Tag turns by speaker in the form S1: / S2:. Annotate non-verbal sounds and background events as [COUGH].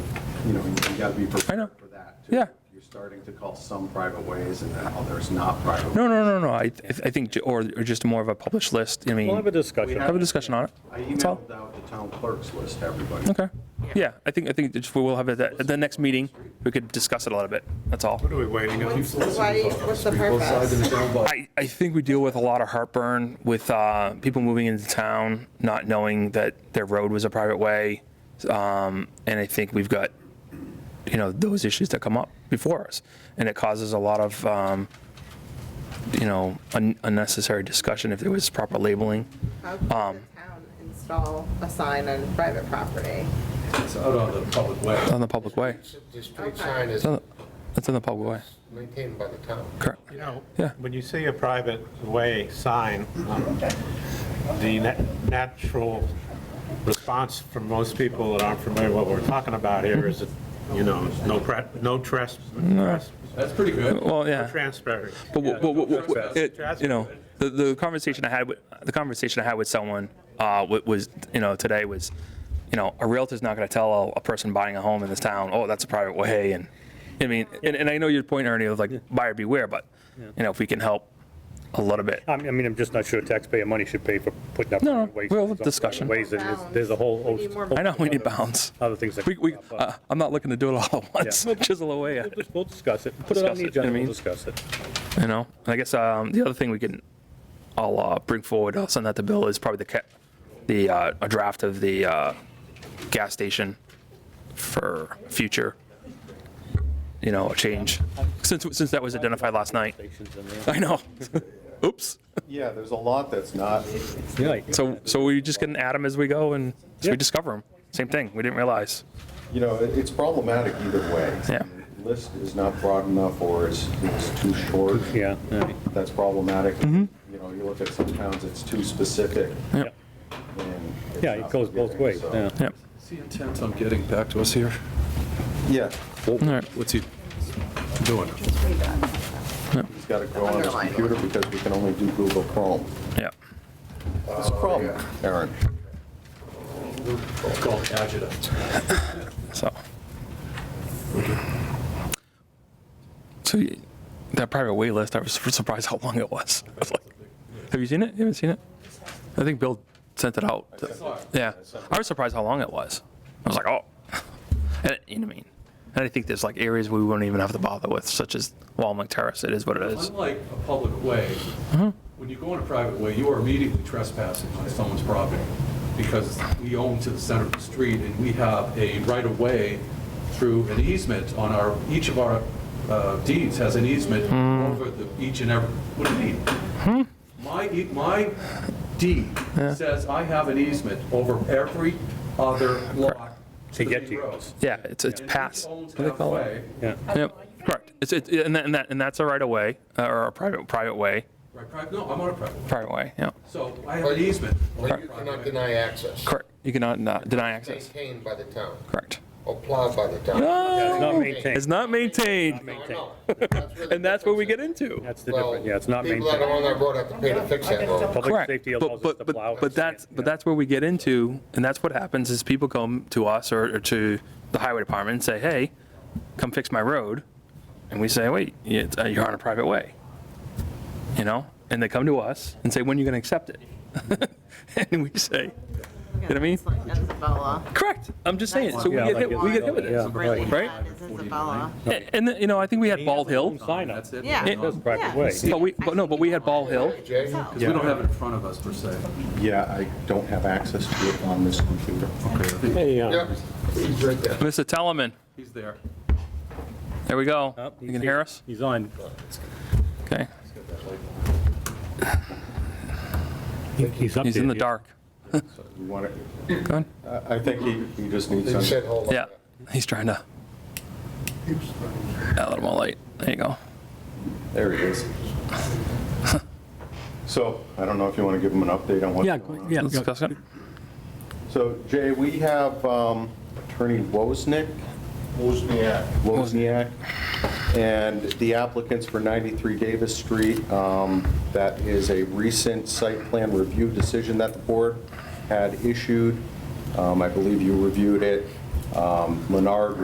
S1: you know, you gotta be
S2: I know.
S1: prepared for that. too.
S2: Yeah.
S1: You're starting to call some private ways and now there's not private.
S2: No, no, no, no, I, I think, ju- or or just more of a published list, I mean.
S3: We'll have a discussion.
S2: Have a discussion on it.
S1: I
S2: That's all.
S1: emailed out the town clerk's list to everybody.
S2: Okay. Yeah, I think, I think that we will have it at at the next meeting. We could discuss it a little bit. That's all.
S4: What are we waiting on?
S5: Why, what's the purpose?
S2: I, I think we deal with a lot of heartburn with uh, people moving into town, not knowing that their road was a private way. Um, and I think we've got, you know, those issues that come up before us. And it causes a lot of, um, you know, un- unnecessary discussion if there was proper labeling.
S5: How can the
S2: Um,
S5: town install a sign on private property?
S1: It's out on the public way.
S2: It's on the public way.
S6: The street sign is
S2: It's on the- It's on the public way.
S6: maintained by the town.
S2: Correct.
S4: You know,
S2: Yeah.
S4: when you say a private way sign, um, the na- natural response from most people that aren't familiar with what we're talking about here is, that, you know, no pre- no tresp- tresp-
S7: That's pretty good.
S2: Well, yeah.
S4: transparency.
S2: But what, what, what, what- it-
S4: That's
S2: you know,
S4: good.
S2: the, the conversation I had with the conversation I had with someone uh, wa- was, you know, today was, you know, a realtor's not going to tell a, a person buying a home in this town, oh, that's a private way, and I mean, and, and I know your point, Ernie, of like buyer beware, but you know, if we can help a little bit,
S3: I mean, I mean, I'm just not sure taxpayer money should pay for putting up.
S2: No, no,
S3: waste-
S2: we'll have a discussion.
S3: Ways, and there's, there's a whole.
S5: We need more-
S3: host-
S2: I know we need bounds.
S3: Other things that.
S2: We, we,
S3: crop up.
S2: uh, I'm not looking to do it all at once, [LAUGHS]
S3: Yeah.
S2: chisel away at
S3: We'll
S2: it.
S3: dis- We'll discuss it. Put it on
S2: Discuss
S3: the
S2: it, you know what I
S3: agenda, we'll
S2: mean?
S3: discuss it.
S2: You know, and I guess um, the other thing we can, I'll uh, bring forward, I'll send that to Bill, is probably the, ca- the, uh, a draft of the uh, gas station for future, you know, a change, since, since that was identified last night. [LAUGHS]
S3: Stations in there.
S2: I know. [LAUGHS] Oops.
S1: Yeah, there's a lot that's not.
S3: Right.
S2: So, so we just get an atom as we go and as we
S3: Yeah.
S2: discover them. Same thing, we didn't realize.
S1: You know, it- it's problematic either way.
S2: Yeah.
S1: The List is not broad enough or it's, it's too short.
S3: Yeah, yeah.
S1: That's problematic.
S2: Mm-hmm.
S1: You know, you look at some towns, it's too specific
S2: Yeah.
S1: and. it's
S3: Yeah, it
S1: not
S3: goes both
S1: forgiving,
S3: ways,
S1: so-
S3: yeah.
S2: Yeah.
S7: Is he intent on getting back to us here?
S1: Yeah,
S2: All right.
S7: What's he doing?
S1: he's got to go on his
S5: Underline.
S1: computer because we can only do Google Chrome.
S2: Yeah.
S1: It's a problem, Aaron.
S7: It's called agita.
S2: So. So y- that private wait list, I was surprised how long it was. [LAUGHS] I was like, have you seen it? You haven't seen it? I think Bill sent it out. Yeah. I was surprised how long it was. I was like, oh. [LAUGHS] And, you know what I mean? And I think there's like areas we wouldn't even have to bother with, such as Walmart Terrace. It is what it is.
S7: Unlike a public way,
S2: Mm-hmm.
S7: when you go on a private way, you are immediately trespassing on someone's property because we own to the center of the street and we have a right-of-way through an easement on our, each of our uh, deeds has an easement
S2: Mm.
S7: over the, each and every, what do you mean?
S2: Hmm?
S7: My, e- my deed says I have an easement over every other lot
S3: To get to
S7: between
S3: you.
S7: rows.
S2: Yeah, it's it's
S7: And each
S2: past.
S7: owns
S2: What do they call it?
S7: halfway.
S2: Yep. Correct. It's it, and that and that and that's a right of way uh, or a private private way.
S7: Right, private, no, I'm on a private way.
S2: Private way. Yeah.
S7: So I have an easement.
S6: But you cannot deny access.
S2: Correct. You cannot not deny access.
S6: Maintained by the town,
S2: Correct.
S6: or plowed by the town.
S3: It's not
S2: No,
S3: maintained.
S2: it's not maintained.
S6: No, I know. where the
S2: [LAUGHS] And that's where we get
S6: difference
S2: into.
S3: That's the
S6: is. Well,
S3: difference, yeah, it's not
S6: People that are
S3: maintained.
S6: on that road have to pay to fix that road.
S3: Public
S2: Correct.
S3: safety
S2: But,
S3: allows us to
S2: but,
S3: plow.
S2: but, but that's, but that's where we get into, and that's what happens is people come to us or, or to the highway department and say, hey, come fix my road. And we say, wait, yeah, it's- uh, you're on a private way. You know, and they come to us and say, when are you going to accept it? [LAUGHS] And we say,
S5: You
S2: what I mean?
S5: Isabella.
S2: correct, I'm just saying, so we
S3: Yeah,
S2: get
S3: like
S2: hit, we get hit with
S3: Yeah,
S2: it.
S5: Really
S2: right.
S5: bad is Isabella.
S2: A- And, you know, I think we had Bald Hill,
S3: Sign up.
S7: That's it?
S5: Yeah.
S2: It
S3: does private
S5: yeah.
S3: way.
S2: but we, but no, but we had Ball Hill.
S6: Jay?
S7: Because we don't have it in front of us per se.
S1: Yeah, I don't have access to it on this computer.
S3: Hey, uh,
S6: Yep, he's right there.
S2: Mr. Telemann,
S7: He's there.
S2: there we go.
S3: oh,
S2: You can
S3: he's
S2: hear
S3: here.
S2: us?
S3: He's on.
S2: Okay,
S3: He's up
S2: he's in the dark.
S1: You want it?
S2: Go ahead.
S1: I I think he, he just needs
S6: He said,
S1: some.
S6: hold on.
S2: Yeah, he's trying to. Add a little more light. There you go.
S1: There he is. So I don't know if you want to give him an update on what's
S3: Yeah,
S1: going on.
S3: yeah.
S2: Let's discuss it.
S1: So Jay, we have um, Attorney Wozniak. Wozniak. Wozniak. And the applicants for 93 Davis Street, um, that is a recent site plan review decision that the board had issued. Um, I believe you reviewed it. Um, Leonard